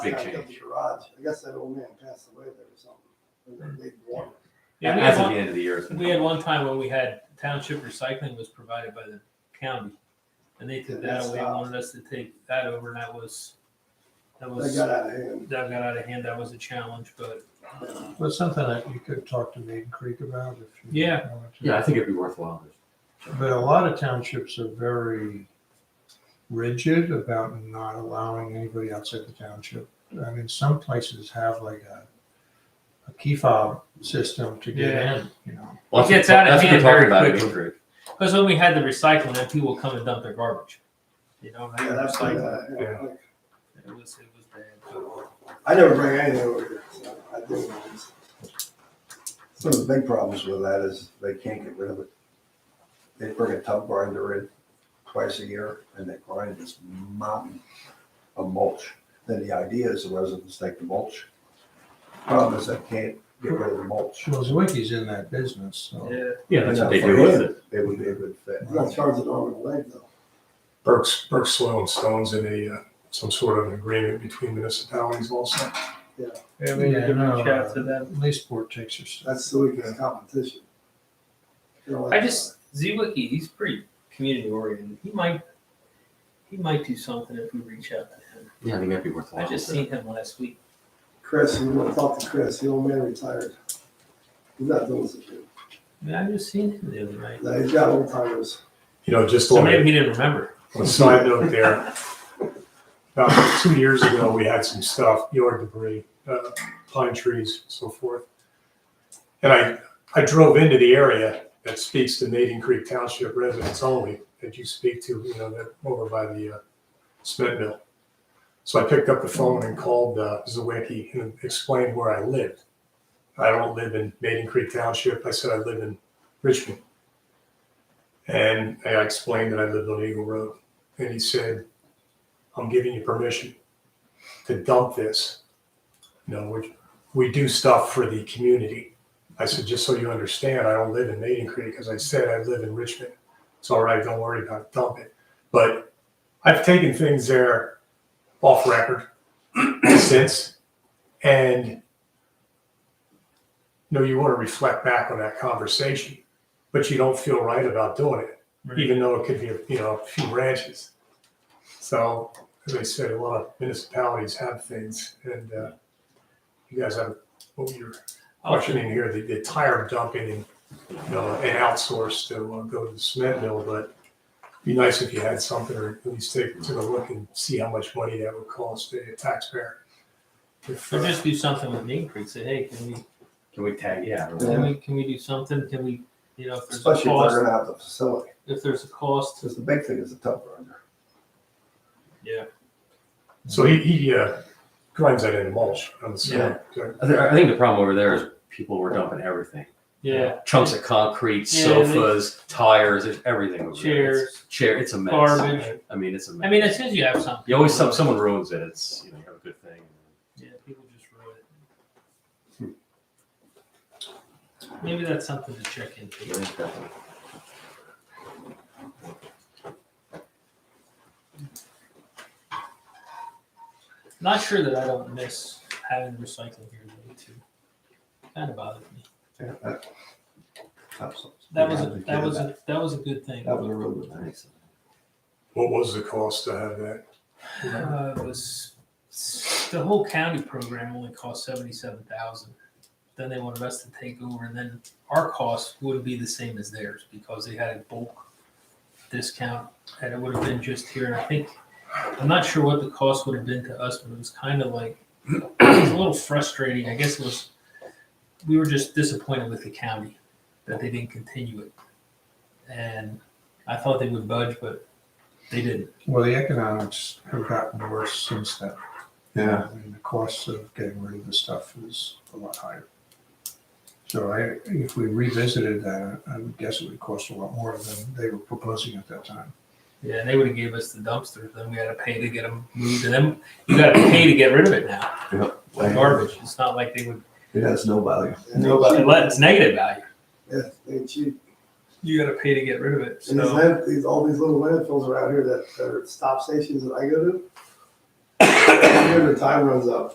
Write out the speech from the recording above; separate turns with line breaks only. I
Big
got it at
change.
the garage. I guess that old man passed away there or something. Or
Mm.
they bought it.
Yeah, we
as
had
of the
one-
end of the year. it's been-
We had one time when we had township recycling was provided by the county, and they took that away and wanted us to take that over, and that was, that
They
was,
got
that
out of hand.
got out of hand, that was a challenge, but
Well, it's something that you could talk to Maiden Creek about if you
Yeah.
wanted to.
Yeah, I think it'd be worthwhile.
But a lot of townships are very rigid about not allowing anybody outside the township. I mean, some places have like a, a key fob system to get
Yeah.
in, you know.
Well, it gets out of
That's what
hand
they're
very
talking about in
quickly.
Woodbridge.
Because when we had the recycling, then people would come and dump their garbage. You know,
Yeah, that's like,
it
uh, yeah, like,
was it was bad.
I never bring anything over here. so I do. Some of the big problems with that is they can't get rid of it. They bring a tub grinder in twice a year and they grind this mountain of mulch. Then the idea is the residents take the mulch. Problem is they can't get rid of the mulch.
Shulzwicki's in that business, so.
Yeah,
Yeah, that's what they
For
do with
him,
it.
It would be a good fit.
You're not
charging on the leg though.
Burke's, Burke's Soil and Stone's in a, uh, some sort of agreement between municipalities also.
yeah, we need to
no,
reach out to them.
uh, Leesport takes your stuff.
That's the weakest competition. You know,
I
like,
just Zwicky, he's pretty community oriented. He might, he might do something if we reach out to him.
Yeah, I think that'd be worthwhile.
I just seen him last week.
Chris, you want to talk to Chris, the old man retired. He's not doing such a,
I just seen him the other night.
no, he's got old timers.
You know, just
So
on
maybe
a
he didn't remember.
on a side note there, about two years ago, we had some stuff, yard debris, uh, pine trees, so forth. And I, I drove into the area that speaks to Maiden Creek Township residents only, that you speak to, you know, that over by the uh, cement mill. So I picked up the phone and called uh, Zawicki and explained where I lived. I don't live in Maiden Creek Township. I said I live in Richmond. And I explained that I lived on Eagle Road. And he said, I'm giving you permission to dump this. You know, we, we do stuff for the community. I said, just so you understand, I don't live in Maiden Creek. As I said, I live in Richmond. It's all right. Don't worry about it. Dump it. But I've taken things there off record since. And you know, you want to reflect back on that conversation, but you don't feel right about doing it even though it could be, you know, a few branches. So, as I said, a lot of municipalities have things, and uh, you guys have what you're questioning here, the, the tire dumping and, you know, and outsource to uh, go to the cement mill, but it'd be nice if you had something, or at least take, take a look and see how much money that would cost a taxpayer. If,
Or
uh,
just do something with Main Creek. Say, hey, can we
Can we tag? Yeah. I don't know.
Can we, can we do something? Can we, you know, if there's a
Especially if they're
cost,
gonna have the facility,
if there's a cost,
because the big thing is the tub grinder.
yeah.
so he, he uh, grinds that into mulch on the cement. correct?
I, thi- I think the problem over there is people were dumping everything.
Yeah.
Chunks of concrete,
Yeah, they-
sofas, tires, there's everything over there. It's-
Chairs,
Chair, it's a mess.
garbage.
I mean, it's a mess.
I mean, as soon as you have something.
you always some, someone ruins it. It's you know you have a good thing.
Yeah, people just ruin
Hmm.
it. Maybe that's something to check into. Not sure that I don't miss having recycling here though too. Kind of bothered me.
Yeah, that- that's-
That was, a-
Yeah,
that was, a that was a good thing.
That was a real good thing.
What was the cost to have that?
Uh, it was the whole county program only cost seventy-seven thousand. Then they wanted us to take over, and then our cost wouldn't be the same as theirs because they had a bulk discount, and it would have been just here. And I think I'm not sure what the cost would have been to us, but it was kind of like it was a little frustrating. I guess it was we were just disappointed with the county that they didn't continue it, and I thought they would budge, but they didn't.
Well, the economics have gotten worse since then.
Yeah.
I mean, the cost of getting rid of the stuff is a lot higher. So I, if we revisited that, I would guess it would cost a lot more than they were proposing at that time.
Yeah, and they would have gave us the dumpsters. Then we had to pay to get them moved, and then you got to pay to get rid of it now. Like garbage. It's not like they would.
It has no value.
Nobody. It's negative value.
Yeah, they cheap.
You got to pay to get rid of it.
And these
So
land, these, all these little landfills around here that, that are stop stations that I go to, Here the time runs up.